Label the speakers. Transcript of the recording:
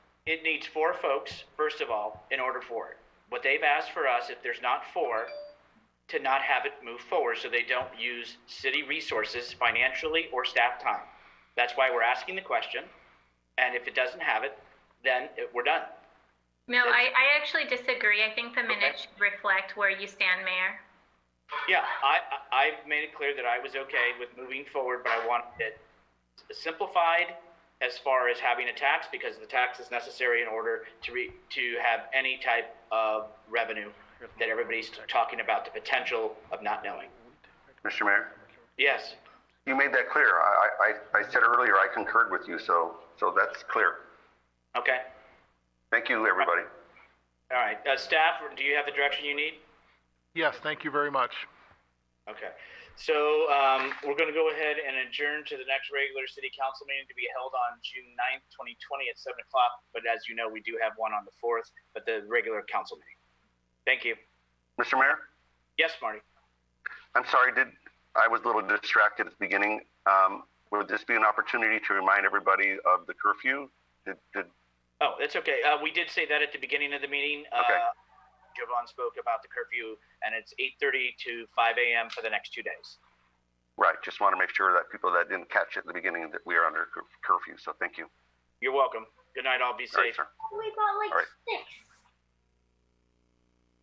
Speaker 1: It needs four folks, first of all, in order for it. What they've asked for us, if there's not four, to not have it move forward so they don't use city resources financially or staff time. That's why we're asking the question. And if it doesn't have it, then it- we're done.
Speaker 2: No, I, I actually disagree. I think the minutes should reflect where you stand, Mayor.
Speaker 1: Yeah, I, I, I've made it clear that I was okay with moving forward, but I wanted it simplified as far as having a tax, because the tax is necessary in order to re, to have any type of revenue that everybody's talking about, the potential of not knowing.
Speaker 3: Mr. Mayor,
Speaker 1: Yes,
Speaker 3: you made that clear. I, I, I said earlier I concurred with you, so, so that's clear.
Speaker 1: okay,
Speaker 3: Thank you, everybody.
Speaker 1: all right. Uh, staff, do you have the direction you need?
Speaker 4: Yes, thank you very much.
Speaker 1: Okay, so, um, we're gonna go ahead and adjourn to the next regular city council meeting to be held on June ninth, twenty twenty at seven o'clock. But as you know, we do have one on the fourth, but the regular council meeting. Thank you.
Speaker 3: Mr. Mayor,
Speaker 1: Yes, Marty?
Speaker 3: I'm sorry, did, I was a little distracted at the beginning. Um, would this be an opportunity to remind everybody of the curfew? Did, did,
Speaker 1: Oh, that's okay. Uh, we did say that at the beginning of the meeting.
Speaker 3: Okay.
Speaker 1: Uh, Jovan spoke about the curfew and it's eight thirty to five AM for the next two days.
Speaker 3: right, just want to make sure that people that didn't catch it at the beginning that we are under cur- curfew, so thank you.
Speaker 1: You're welcome. Good night, all. Be
Speaker 3: All right,
Speaker 1: safe.
Speaker 3: sir.
Speaker 5: We got like
Speaker 3: All right.
Speaker 5: six.